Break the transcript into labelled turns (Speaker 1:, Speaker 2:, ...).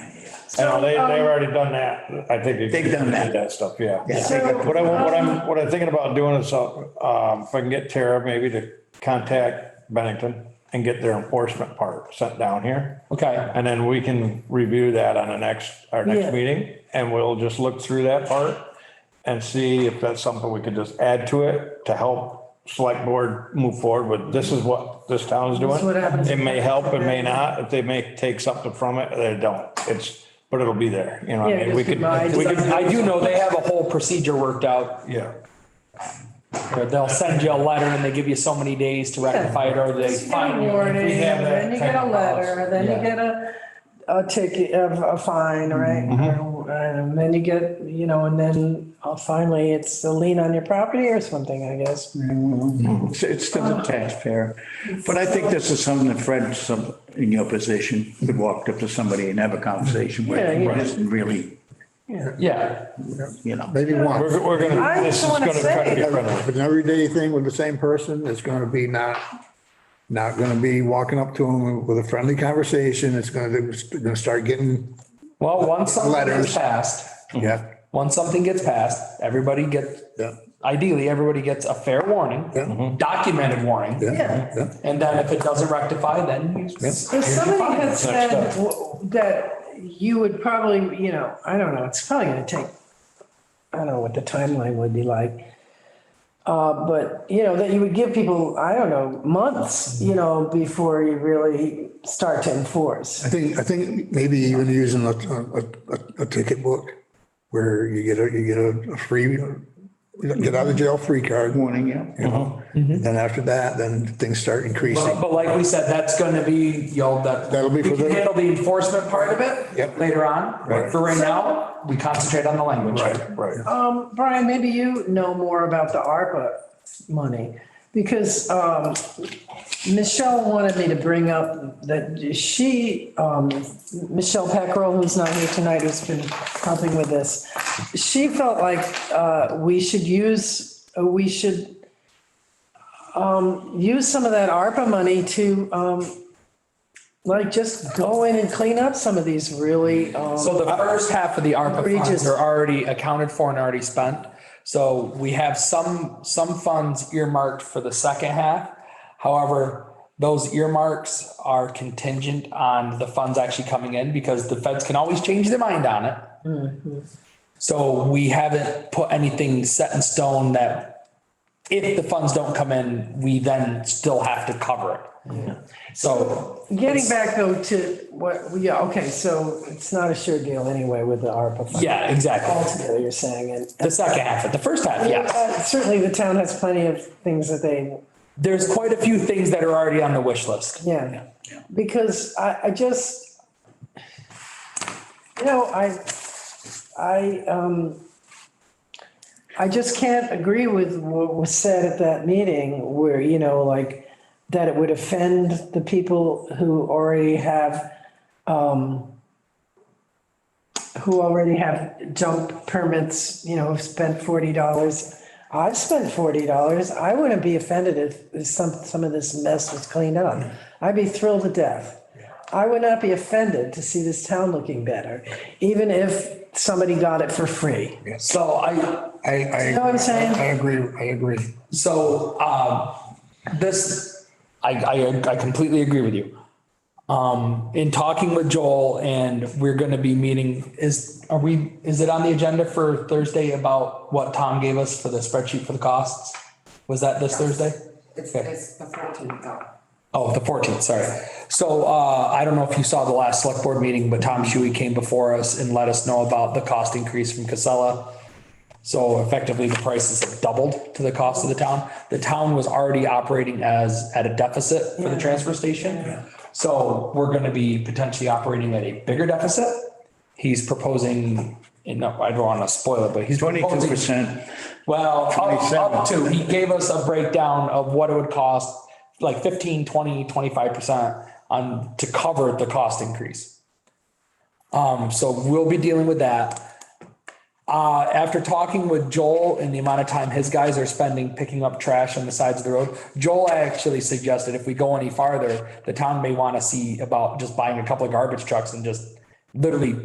Speaker 1: I know, uh, they, they've already done that. I think.
Speaker 2: They've done
Speaker 1: did
Speaker 2: that.
Speaker 1: stuff, yeah.
Speaker 2: Yeah,
Speaker 1: What I, what I'm, what I'm thinking about doing is, uh, um, if I can get Tara maybe to contact Bennington and get their enforcement part sent down here.
Speaker 3: Okay.
Speaker 1: And then we can review that on the next, our
Speaker 4: Yeah.
Speaker 1: next meeting, and we'll just look through that part and see if that's something we could just add to it to help select board move forward with, this is what this town is doing.
Speaker 4: what happens.
Speaker 1: It may help, it may not, if they may take something from it, they don't, it's, but it'll be there, you know, what I
Speaker 4: Yeah,
Speaker 1: mean, we
Speaker 4: just
Speaker 1: could,
Speaker 4: divide.
Speaker 1: we could,
Speaker 3: I do know they have a whole procedure worked out.
Speaker 1: yeah.
Speaker 3: where They'll send you a letter and they give you so many days to rectify it or they
Speaker 4: You get
Speaker 3: fine
Speaker 4: a
Speaker 3: you. If
Speaker 4: warning,
Speaker 3: we have that
Speaker 4: then you
Speaker 3: type
Speaker 4: get a
Speaker 3: of
Speaker 4: letter,
Speaker 3: policy,
Speaker 4: then you
Speaker 3: yeah.
Speaker 4: get a, a ticket, a, a fine, right?
Speaker 3: Mm-hmm.
Speaker 4: And then you get, you know, and then uh, finally it's a lien on your property or something, I guess.
Speaker 2: It's it's to the taxpayer. But I think this is something that Fred, some, in your position, could walk up to somebody and have a conversation with.
Speaker 4: Yeah, yeah.
Speaker 2: It isn't really,
Speaker 3: Yeah.
Speaker 2: you know.
Speaker 5: Maybe once,
Speaker 1: We're, we're gonna,
Speaker 4: I
Speaker 1: this is
Speaker 4: just wanna
Speaker 1: gonna try to
Speaker 4: say-
Speaker 1: be friendly.
Speaker 5: if it's an everyday thing with the same person, it's gonna be not, not gonna be walking up to them with a friendly conversation. It's gonna, it's gonna start getting,
Speaker 3: Well, once something gets
Speaker 5: Letters.
Speaker 3: passed,
Speaker 1: Mm-hmm.
Speaker 5: yeah,
Speaker 3: once something gets passed, everybody gets,
Speaker 5: yeah,
Speaker 3: ideally, everybody gets a fair
Speaker 5: Yeah.
Speaker 3: warning,
Speaker 5: Mhm.
Speaker 3: documented warning.
Speaker 5: yeah, yeah.
Speaker 3: And then if it doesn't rectify, then you. s-
Speaker 4: If
Speaker 3: here's your
Speaker 4: somebody
Speaker 3: fine.
Speaker 4: had said w- that you would probably, you know, I don't know, it's probably gonna take, I don't know what the timeline would be like. Uh, but, you know, that you would give people, I don't know, months,
Speaker 3: Mm-hmm.
Speaker 4: you know, before you really start to enforce.
Speaker 5: I think, I think maybe even using a, a, a- a ticket book where you get a, you get a- a free, get out of jail free card.
Speaker 2: Warning, yeah.
Speaker 5: you know?
Speaker 1: Mm-hmm.
Speaker 5: Then after that, then things start
Speaker 3: But,
Speaker 5: increasing.
Speaker 3: but like we said, that's gonna be, you know, that.
Speaker 5: That'll be
Speaker 3: We
Speaker 5: for
Speaker 3: can
Speaker 5: the-
Speaker 3: handle the enforcement part of it.
Speaker 5: Yep.
Speaker 3: Later on, but
Speaker 5: Right.
Speaker 3: for right now, we concentrate on the language.
Speaker 1: Right, right.
Speaker 4: Um, Brian, maybe you know more about the ARPA money, because, um, Michelle wanted me to bring up that she, um, Michelle Peckrell, who's not here tonight, who's been helping with this. She felt like, uh, we should use, uh, we should, um, use some of that ARPA money to, um, like, just go in and clean up some of these really, um.
Speaker 3: So the first half of the ARPA funds
Speaker 4: Egregious.
Speaker 3: are already accounted for and already spent. So we have some, some funds earmarked for the second half. However, those earmarks are contingent on the funds actually coming in because the feds can always change their mind on it. So we haven't put anything set in stone that if the funds don't come in, we then still have to cover it. So
Speaker 4: Getting back though to what, yeah, okay, so it's not a sure deal anyway with the ARPA. fund.
Speaker 3: Yeah, exactly.
Speaker 4: Altogether, you're saying, and.
Speaker 3: the second half, of it, the first half, yes.
Speaker 4: Uh, Certainly the town has plenty of things that they,
Speaker 3: there's quite a few things that are already on the wish list.
Speaker 4: yeah, because I, I just, you know, I, I, um, I just can't agree with what was said at that meeting where, you know, like, that it would offend the people who already have, um, who already have junk permits, you know, have spent forty dollars. I've spent forty dollars. I wouldn't be offended if if some, some of this mess was cleaned up. I'd be thrilled to death. I would not be offended to see this town looking better, even if somebody got it for free.
Speaker 3: So I,
Speaker 5: I, I.
Speaker 4: know what I'm saying?
Speaker 5: I agree, I agree.
Speaker 3: so, um, this, I, I, I completely agree with you. Um, in talking with Joel and we're gonna be meeting, is, are we, is it on the agenda for Thursday about what Tom gave us for the spreadsheet for the costs? Was that this Thursday?
Speaker 6: It's,
Speaker 3: Okay.
Speaker 6: it's the fourteenth though.
Speaker 3: Oh, the fourteenth, sorry. So, uh, I don't know if you saw the last select board meeting, but Tom Shuey came before us and let us know about the cost increase from Casella. So effectively, the prices have doubled to the cost of the town. The town was already operating as, at a deficit for the transfer station. So we're gonna be potentially operating at a bigger deficit. He's proposing, and no, I don't wanna spoil it, but he's.
Speaker 2: Twenty-two
Speaker 3: proposing-
Speaker 2: percent.
Speaker 3: well, up- up
Speaker 2: 27.
Speaker 3: to, he gave us a breakdown of what it would cost, like 15, 20, 25% on, to cover the cost increase. Um, so we'll be dealing with that. Uh, after talking with Joel and the amount of time his guys are spending picking up trash on the sides of the road, Joel actually suggested if we go any farther, the town may want to see about just buying a couple of garbage trucks and just literally